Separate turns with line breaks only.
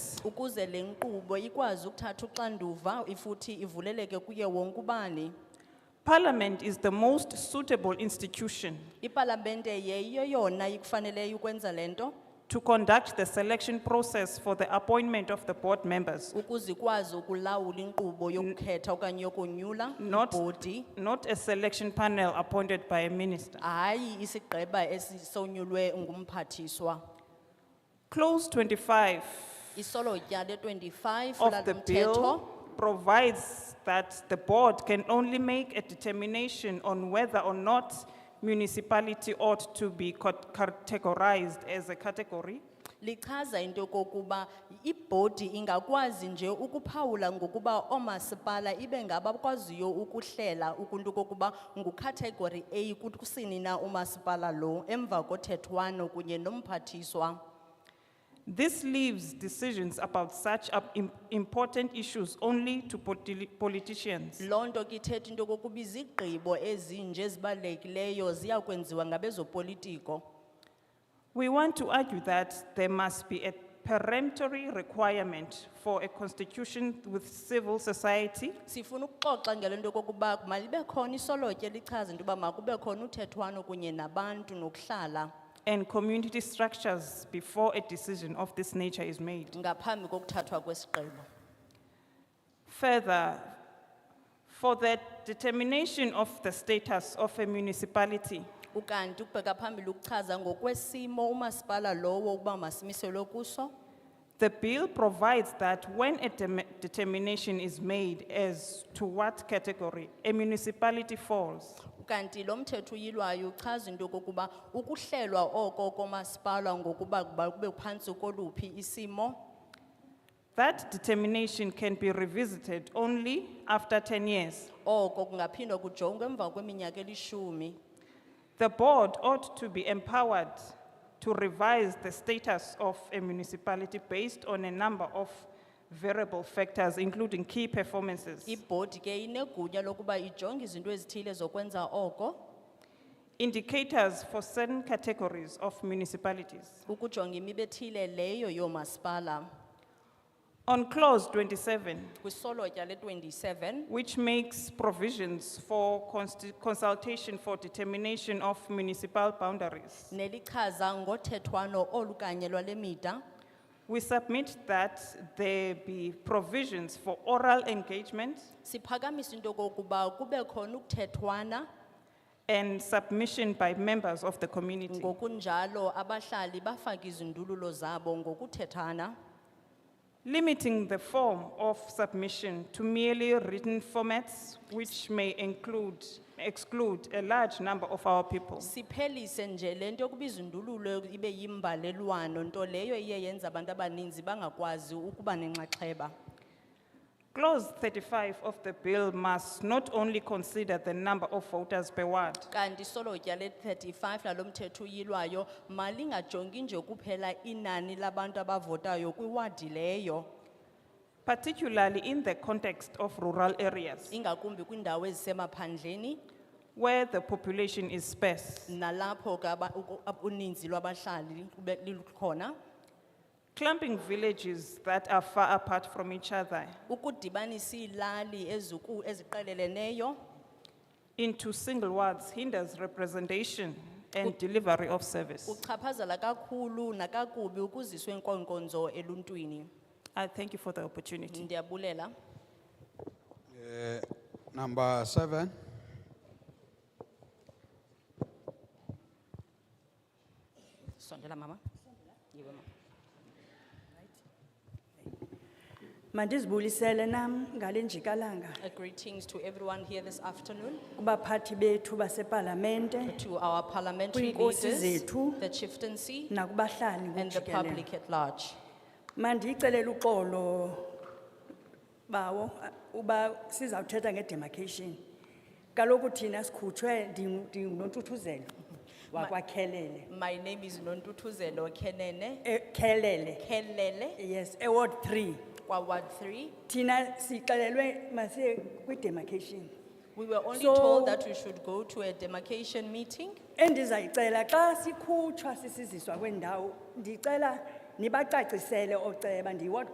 ukuze le nkqubo ikwazi ukuthatha uxanduva ifuthi ivuleleke kuye wonke ubani
Parliament is the most suitable institution
ipalamente yeyiyo yona ikufaneleyo ukwenza le nto
to conduct the selection process for the appointment of the board members,
ukuze ikwazi ukulawula inkqubo yokukhetha okanye yokonyula
Not-
ibhodi
not a selection panel appointed by a minister.
hayi isigqeba esisonyulwe ngumphathiswa
Clause twenty-five
isolotya le-25
of the
lalamthetho
bill provides that the board can only make a determination on whether or not municipality ought to be cate- categorized as a category
lichaza into yokokuba ibhodi ingakwazi nje ukuphawula ngokuba oomasipala ibe ngabakwaziyo ukuhlela ukuntu okokuba ngucategory A kusini na umasipala lo emva kothethwano kunye nomphathiswa
This leaves decisions about such up- im- important issues only to politi- politicians.
loo nto ke ithetha into yokokuba izigqibo ezinje ezibalulekileyo ziyakwenziwa ngabezopolitiko
We want to argue that there must be a peremptory requirement for a constitution with civil society
sifuna ukuxoxa ngale nto yokokuba malibe khona isolotya elichaza into yoba makube khona uthethwano kunye nabantu nokuhlala
and community structures before a decision of this nature is made.
ngaphambi kokuthathwa kwesigqibo
Further, for the determination of the status of a municipality,
Ukanti ukubheka phambili ukuchaza ngokwesimo umasipala lowo ukuba masimiselwe kuso.
The bill provides that when a dem- determination is made as to what category a municipality falls,
Ukanti lo mthetho uyilwayo uchaza into yokokuba ukuhlelwa oko komasipala ngokuba kuba kube phantsi koluphi isimo.
that determination can be revisited only after 10 years.
Oko kungaphindwa kujongwe emva kweminyaka elishumi.
The board ought to be empowered to revise the status of a municipality based on a number of variable factors, including key performances,
Ibhodi ke inegunya lokuba ijonge izinto ezithile zokwenza oko.
indicators for certain categories of municipalities.
Ukujonga imiba ethile leyo yoomasipala.
On clause 27,
Kwisolotya le twenty-seven.
which makes provisions for consti- consultation for determination of municipal boundaries.
Nelichaza ngothethwano olukanye lwale mida.
We submit that there be provisions for oral engagement
Siphakamisa into kokuba kube khona ukuthethwana
and submission by members of the community.
ngokunjalo abahlali bafake izindululo zabo ngokuthethana
Limiting the form of submission to merely written formats which may include, exclude a large number of our people.
siphelise nje lento yokuba izindululo ibe yimbalelwano nto leyo iye yenza abantu abaninzi bangakwazi ukuba nenxaxheba
Clause 35 of the bill must not only consider the number of voters per ward,
kanti solotya le-35 lalo mthetho uyilwayo malingajongi nje kuphela inani labantu abavotayo kwiwadi leyo
particularly in the context of rural areas
ingakumbi kwiindawo ezisemaphandleni
where the population is sparse.
nalapho ke aba- uku- ab- uninzi lwabahlali lube- lilukhona
Clumping villages that are far apart from each other
ukudibanisa iilali eziku- eziqeleleneyo
into single wards hinders representation and delivery of service.
kuchaphazela kakhulu nakakubi ukuziswa inkonkonzo eluntwini
I thank you for the opportunity.
ndiyabulela
Number seven,
sondela mama Yiwe, mama.
Mandizibulisele nam ngale njikalanga
Uh, greetings to everyone here this afternoon
kubaphathi bethu basepalamente
to our parliamentary
Kwiinkosi
leaders
zethu.
the chieftaincy
nakubahlali
and the
ngokujikelele.
public at large
Mandiyicelele uxolo bawo uh, uba sizawuthetha ngedemarcation. Kaloku thina sikhutshwe ndingu- ndingunontuthuzelo wakwakhelele.
my name is nontuthuzelo kenene
Eh, Khelele,
kelele
yes, Award Three.
kwaward three
Thina sixelelwe masiye kwidemarcation.
we were only
So-
told that we should go to a demarcation meeting
Endizayicela xa sikhutshwa sisiziswa kwendawo, ndicela nibacacisele oceba ndiyiward